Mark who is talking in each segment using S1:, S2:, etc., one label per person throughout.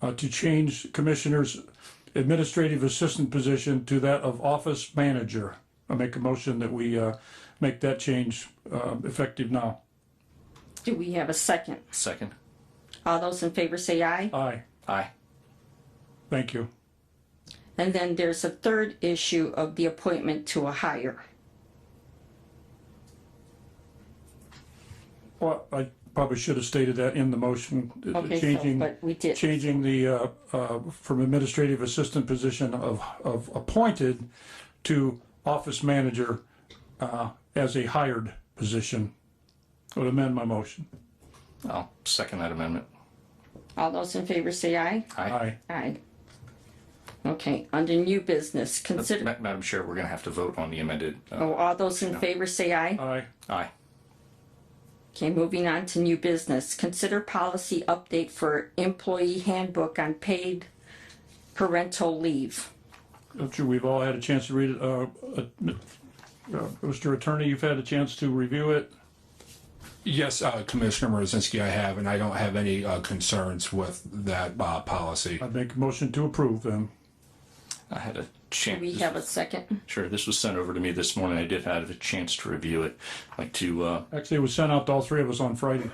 S1: uh, to change Commissioner's administrative assistant position to that of office manager. I make a motion that we uh, make that change uh, effective now.
S2: Do we have a second?
S3: Second.
S2: All those in favor say aye.
S1: Aye,
S3: Aye.
S1: thank you.
S2: And then there's a third issue of the appointment to a hire.
S1: Well, I probably should have stated that in the motion, uh,
S2: Okay, so,
S1: changing.
S2: but we did.
S1: changing the, uh, uh, from administrative assistant position of, of appointed to office manager uh, as a hired position. I Would amend my motion.
S3: I'll second that amendment.
S2: All those in favor say aye.
S3: Aye.
S1: Aye.
S2: Aye. Okay, under new business, consider,
S3: Ma- Madam Chair, we're gonna have to vote on the amended. uh,
S2: oh, all those in favor say aye.
S1: Aye.
S3: Aye.
S2: Okay, moving on to new business, consider policy update for employee handbook on paid parental leave.
S1: I'm sure we've all had a chance to read it. Uh, uh, uh, Mr. Attorney, you've had a chance to review it.
S4: Yes, uh, Commissioner Mrazinski, I have, and I don't have any uh, concerns with that uh, policy.
S1: I make a motion to approve then.
S3: I had a
S2: We
S3: chance.
S2: have a second?
S3: Sure, this was sent over to me this morning. I did have a chance to review it. I'd Like to, uh,
S1: Actually, it was sent out to all three of us on Friday.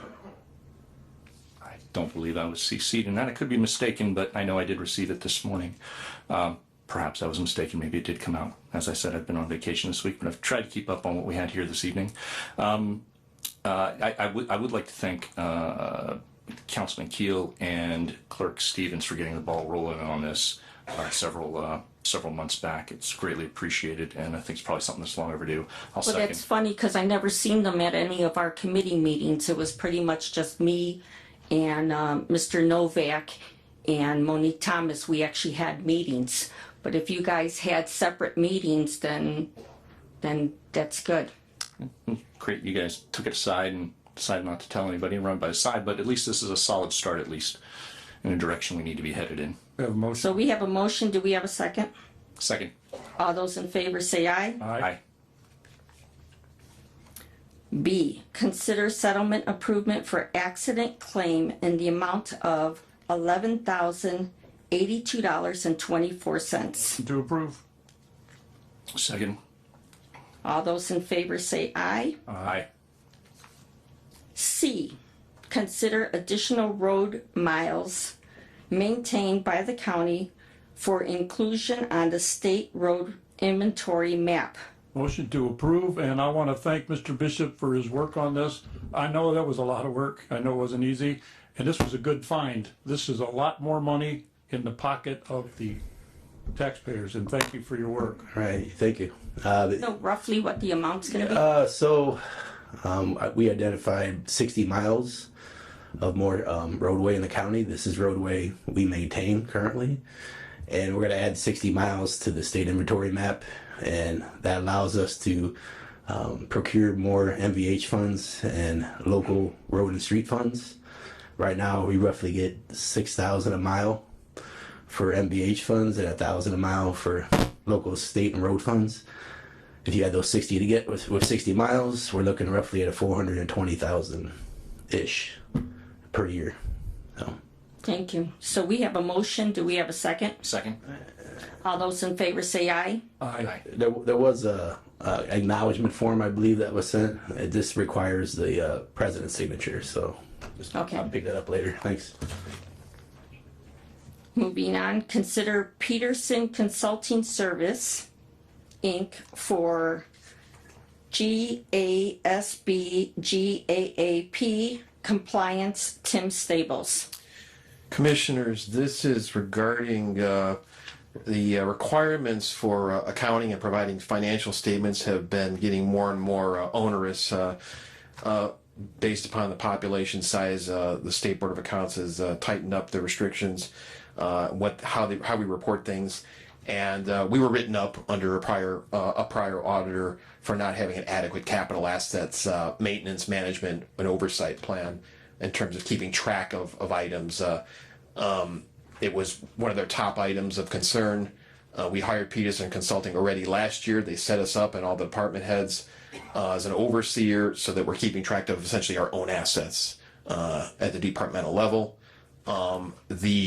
S3: I don't believe I was CC'd in that. I could be mistaken, but I know I did receive it this morning. Um, perhaps I was mistaken. Maybe it did come out. As I said, I've been on vacation this week, but I've tried to keep up on what we had here this evening. Um, uh, I, I would I would like to thank uh, Councilman Keel and Clerk Stevens for getting the ball rolling on this uh, several uh, several months back. It's greatly appreciated, and I think it's probably something that's long overdue. I'll
S2: Well,
S3: second.
S2: that's funny because I never seen them at any of our committee meetings. It was pretty much just me and um, Mr. Novak and Monique Thomas. We actually had meetings. But if you guys had separate meetings, then, then that's good.
S3: great you guys took it aside and decided not to tell anybody and run by the side, but at least this is a solid start, at least in the direction we need to be headed in.
S1: We have a motion.
S2: So we have a motion. Do we have a second?
S3: Second.
S2: All those in favor say aye.
S3: Aye.
S2: B, consider settlement improvement for accident claim in the amount of eleven thousand eighty-two dollars and twenty-four cents.
S1: To approve.
S3: Second.
S2: All those in favor say aye.
S3: Aye.
S2: C, consider additional road miles maintained by the county for inclusion on the state road inventory map.
S1: Motion to approve, and I want to thank Mr. Bishop for his work on this. I know that was a lot of work. I know it wasn't easy, and this was a good find. This is a lot more money in the pocket of the taxpayers, and thank you for your work.
S5: Right, thank you. Uh,
S2: Know roughly what the amount's gonna be?
S5: uh, so, um, I- we identified sixty miles of more, um, roadway in the county. This is roadway we maintain currently. And we're gonna add sixty miles to the state inventory map, and that allows us to, um, procure more MVH funds and local road and street funds. Right now, we roughly get six thousand a mile for MVH funds and a thousand a mile for local state and road funds if you had those 60 to get with, with 60 miles we're looking roughly at a 420000 ish per year so
S2: Thank you. So we have a motion. Do we have a second?
S3: Second.
S2: All those in favor say aye.
S1: Aye.
S5: there, there was a, a acknowledgement form i believe that was sent it just requires the uh, president's signature so just
S2: Okay.
S5: i'll pick that up later thanks
S2: Moving on, consider Peterson Consulting Service, Inc. for GASB GAAP compliance, Tim Stables.
S6: Commissioners, this is regarding uh, the uh, requirements for uh, accounting and providing financial statements have been getting more and more uh, onerous uh, uh, based upon the population size. Uh, the State Board of Accounts has uh, tightened up the restrictions, uh, what how they how we report things, and uh, we were written up under a prior uh, a prior auditor for not having an adequate capital assets uh, maintenance management and oversight plan in terms of keeping track of of items. Uh, um, it was one of their top items of concern. Uh, we hired Peterson Consulting already last year. They set us up and all the department heads uh, as an overseer so that we're keeping track of essentially our own assets uh, at the departmental level. Um, the